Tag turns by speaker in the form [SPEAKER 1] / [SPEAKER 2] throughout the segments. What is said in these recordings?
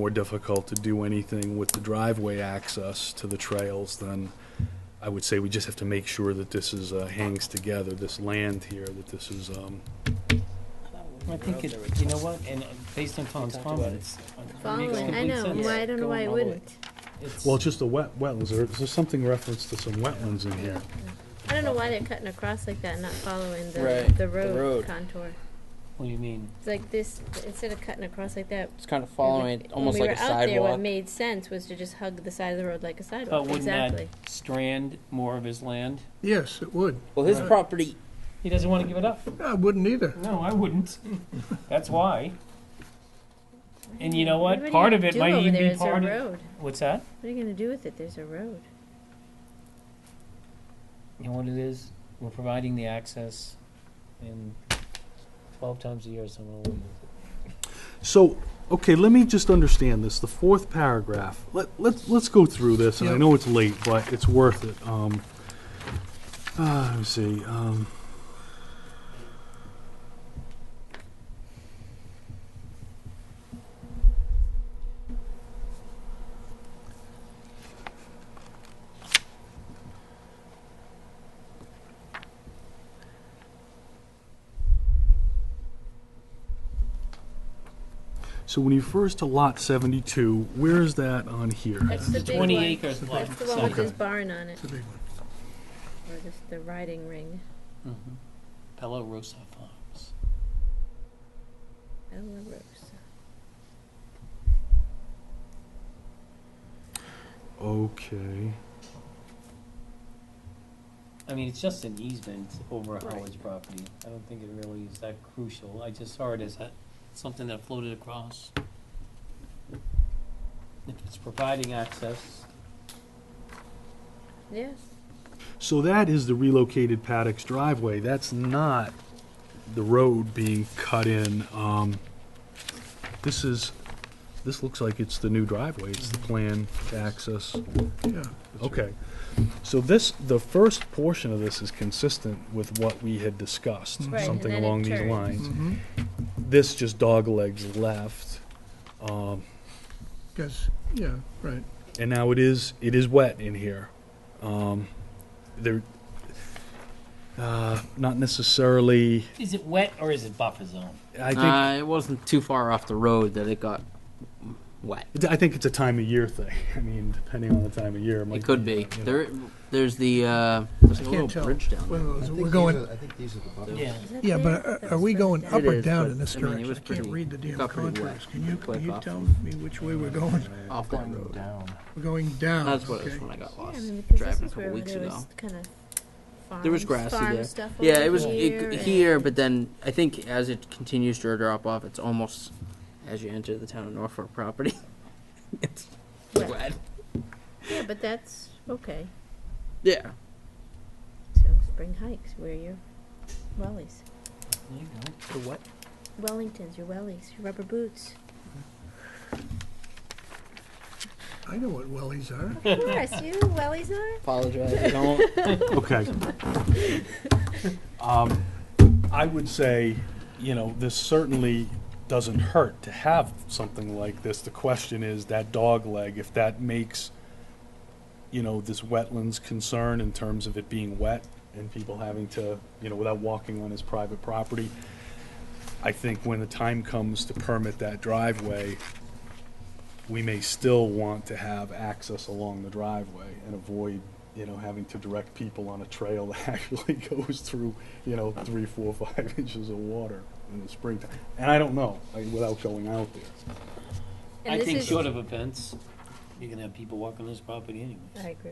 [SPEAKER 1] more difficult to do anything with the driveway access to the trails, then I would say we just have to make sure that this is, uh, hangs together, this land here, that this is, um,
[SPEAKER 2] I think it, you know what, and uh, based on Tom's comments. it makes
[SPEAKER 3] Following,
[SPEAKER 2] complete
[SPEAKER 3] I know,
[SPEAKER 2] sense.
[SPEAKER 3] why, I don't know
[SPEAKER 2] Going
[SPEAKER 3] why it
[SPEAKER 2] all the way.
[SPEAKER 3] wouldn't.
[SPEAKER 2] It's-
[SPEAKER 1] well, it's just the wet, wetlands, there, there's something reference to some wetlands in here.
[SPEAKER 3] I don't know why they're cutting across like that, not following the,
[SPEAKER 4] Right,
[SPEAKER 3] the
[SPEAKER 4] the
[SPEAKER 3] road
[SPEAKER 4] road.
[SPEAKER 3] contour.
[SPEAKER 2] What do you mean?
[SPEAKER 3] It's like this, instead of cutting across like that,
[SPEAKER 4] It's kind of following it,
[SPEAKER 3] when
[SPEAKER 4] almost
[SPEAKER 3] we
[SPEAKER 4] like a
[SPEAKER 3] were out there, what
[SPEAKER 4] sidewalk.
[SPEAKER 3] made sense was to just hug the side of the road like a
[SPEAKER 2] But
[SPEAKER 3] sidewalk,
[SPEAKER 2] wouldn't that
[SPEAKER 3] exactly.
[SPEAKER 2] strand more of his land?
[SPEAKER 5] Yes, it would.
[SPEAKER 4] Well, his
[SPEAKER 5] Right.
[SPEAKER 4] property,
[SPEAKER 2] He doesn't want to give it up.
[SPEAKER 5] I wouldn't either.
[SPEAKER 2] No, I wouldn't. That's why. And you know
[SPEAKER 3] do
[SPEAKER 2] what?
[SPEAKER 3] you
[SPEAKER 2] Part of it
[SPEAKER 3] do
[SPEAKER 2] might
[SPEAKER 3] over
[SPEAKER 2] even
[SPEAKER 3] there?
[SPEAKER 2] be
[SPEAKER 3] It's a
[SPEAKER 2] part of.
[SPEAKER 3] road.
[SPEAKER 2] What's that?
[SPEAKER 3] What are you gonna do with it? There's a road.
[SPEAKER 2] You know what it is? We're providing the access and twelve times a year someone will use it.
[SPEAKER 1] So, okay, let me just understand this, the fourth paragraph, let, let, let's go through this, and I
[SPEAKER 5] Yeah.
[SPEAKER 1] know it's late, but it's worth it, um, uh, let me see, um. So when you first to lot seventy-two, where is that on here?
[SPEAKER 3] That's the big
[SPEAKER 2] Twenty
[SPEAKER 3] one.
[SPEAKER 2] acres lot.
[SPEAKER 3] That's the one with
[SPEAKER 1] Okay.
[SPEAKER 3] this barn on it,
[SPEAKER 5] It's a big one.
[SPEAKER 3] or just the riding ring.
[SPEAKER 2] Mhm. Pella Rosa Farms.
[SPEAKER 3] Ella Rosa.
[SPEAKER 1] Okay.
[SPEAKER 2] I mean, it's just an easement over
[SPEAKER 3] Right.
[SPEAKER 2] Howard's property. I don't think it really is that crucial. I just saw it as a, something that floated across. If it's providing access,
[SPEAKER 3] Yes,
[SPEAKER 1] So that is the relocated paddocks driveway. That's not the road being cut in. Um, this is, this looks like it's the new driveway. It's the plan to access.
[SPEAKER 5] Yeah.
[SPEAKER 1] Okay. So this, the first portion of this is consistent with what we had discussed,
[SPEAKER 5] Right,
[SPEAKER 3] and
[SPEAKER 1] something
[SPEAKER 3] then it
[SPEAKER 1] along these
[SPEAKER 3] turns.
[SPEAKER 1] lines.
[SPEAKER 5] Mm-hmm.
[SPEAKER 1] This just doglegs left. Um,
[SPEAKER 5] Yes, yeah, right.
[SPEAKER 1] and now it is it is wet in here. Um, there, uh, not necessarily.
[SPEAKER 2] is it wet or is it buffer zone?
[SPEAKER 1] I think
[SPEAKER 4] uh, it wasn't too far off the road that it got wet.
[SPEAKER 1] I think it's a time of year thing. I mean, depending on the time of year, it, might
[SPEAKER 4] It could be.
[SPEAKER 1] you know.
[SPEAKER 4] There, there's the, uh, there's
[SPEAKER 5] I
[SPEAKER 4] like a
[SPEAKER 5] can't
[SPEAKER 4] little
[SPEAKER 5] tell.
[SPEAKER 4] bridge down
[SPEAKER 5] One
[SPEAKER 4] there.
[SPEAKER 5] of those,
[SPEAKER 6] I
[SPEAKER 5] we're
[SPEAKER 6] think
[SPEAKER 5] going,
[SPEAKER 6] these are- I think these are the buttons.
[SPEAKER 2] Yeah.
[SPEAKER 3] Is that
[SPEAKER 5] yeah,
[SPEAKER 3] there?
[SPEAKER 5] but are-
[SPEAKER 3] That
[SPEAKER 5] are
[SPEAKER 3] was
[SPEAKER 5] we
[SPEAKER 3] right
[SPEAKER 5] going
[SPEAKER 3] there.
[SPEAKER 5] up or
[SPEAKER 4] is,
[SPEAKER 5] down
[SPEAKER 4] but,
[SPEAKER 5] in
[SPEAKER 4] I
[SPEAKER 5] this
[SPEAKER 4] mean, it
[SPEAKER 5] direction?
[SPEAKER 4] was
[SPEAKER 5] I can't
[SPEAKER 4] pretty-
[SPEAKER 5] read the damn
[SPEAKER 4] got pretty
[SPEAKER 5] contracts.
[SPEAKER 4] wet
[SPEAKER 5] Can you,
[SPEAKER 4] quick
[SPEAKER 5] can you
[SPEAKER 4] off-
[SPEAKER 5] tell me which way we're going?
[SPEAKER 4] Off that road.
[SPEAKER 6] Down.
[SPEAKER 5] We're going down,
[SPEAKER 4] That's what it was
[SPEAKER 5] okay.
[SPEAKER 4] when I got
[SPEAKER 3] Yeah, I
[SPEAKER 4] lost
[SPEAKER 3] mean, because this
[SPEAKER 4] driving a
[SPEAKER 3] is
[SPEAKER 4] couple
[SPEAKER 3] where
[SPEAKER 4] weeks
[SPEAKER 3] there
[SPEAKER 4] ago.
[SPEAKER 3] was kind of farm,
[SPEAKER 4] There was grassy
[SPEAKER 3] farm
[SPEAKER 4] there.
[SPEAKER 3] stuff
[SPEAKER 4] Yeah,
[SPEAKER 3] over
[SPEAKER 4] it was
[SPEAKER 3] here
[SPEAKER 4] it,
[SPEAKER 3] and-
[SPEAKER 4] here, but then I think as it continues to drop off, it's almost as you enter the town of Norfolk property. it's
[SPEAKER 3] Wet.
[SPEAKER 4] wet.
[SPEAKER 3] Yeah, but that's okay.
[SPEAKER 4] Yeah.
[SPEAKER 3] So spring hikes, wear your wellies.
[SPEAKER 2] There you go.
[SPEAKER 4] The wet.
[SPEAKER 3] Wellingtons, your wellies, your rubber boots.
[SPEAKER 5] I know what wellies are.
[SPEAKER 3] Of course, you know what wellies are.
[SPEAKER 4] Apologize. I don't.
[SPEAKER 1] Okay. Um, I would say, you know, this certainly doesn't hurt to have something like this. The question is that dog leg, if that makes, you know, this wetlands concern in terms of it being wet and people having to, you know, without walking on his private property. I think when the time comes to permit that driveway, we may still want to have access along the driveway and avoid, you know, having to direct people on a trail that actually goes through, you know, three, four, five inches of water in the springtime. And I don't know, like, without going out there.
[SPEAKER 3] And
[SPEAKER 2] I
[SPEAKER 3] this
[SPEAKER 2] think
[SPEAKER 3] is-
[SPEAKER 2] short of a fence, you're gonna have people walking this property
[SPEAKER 3] I
[SPEAKER 2] anyways.
[SPEAKER 3] agree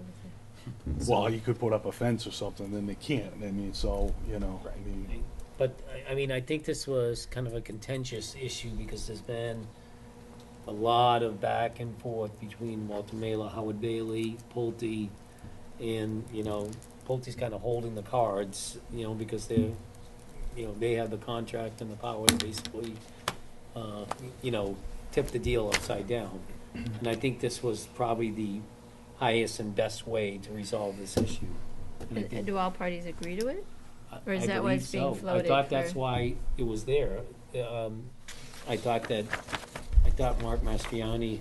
[SPEAKER 3] with
[SPEAKER 1] Well, you could put up a fence or something, then they can't, I mean, so, you know, I mean,
[SPEAKER 2] But, I, I mean, I think this was kind of a contentious issue because there's been a lot of back and forth between Walter Mailer, Howard Bailey, Pulte, and, you know, Pulte's kind of holding the cards, you know, because they're, you know, they have the contract and the power to basically, uh, you know, tip the deal upside down. And I think this was probably the highest and best way to resolve this issue. And I
[SPEAKER 3] you. And-
[SPEAKER 2] think-
[SPEAKER 3] And do all parties agree to it?
[SPEAKER 2] I-
[SPEAKER 3] Or is
[SPEAKER 2] I
[SPEAKER 3] that why
[SPEAKER 2] believe
[SPEAKER 3] it's being
[SPEAKER 2] so.
[SPEAKER 3] floated
[SPEAKER 2] I thought that's
[SPEAKER 3] for-
[SPEAKER 2] why it was there. Um, I thought that, I thought Mark Mastriani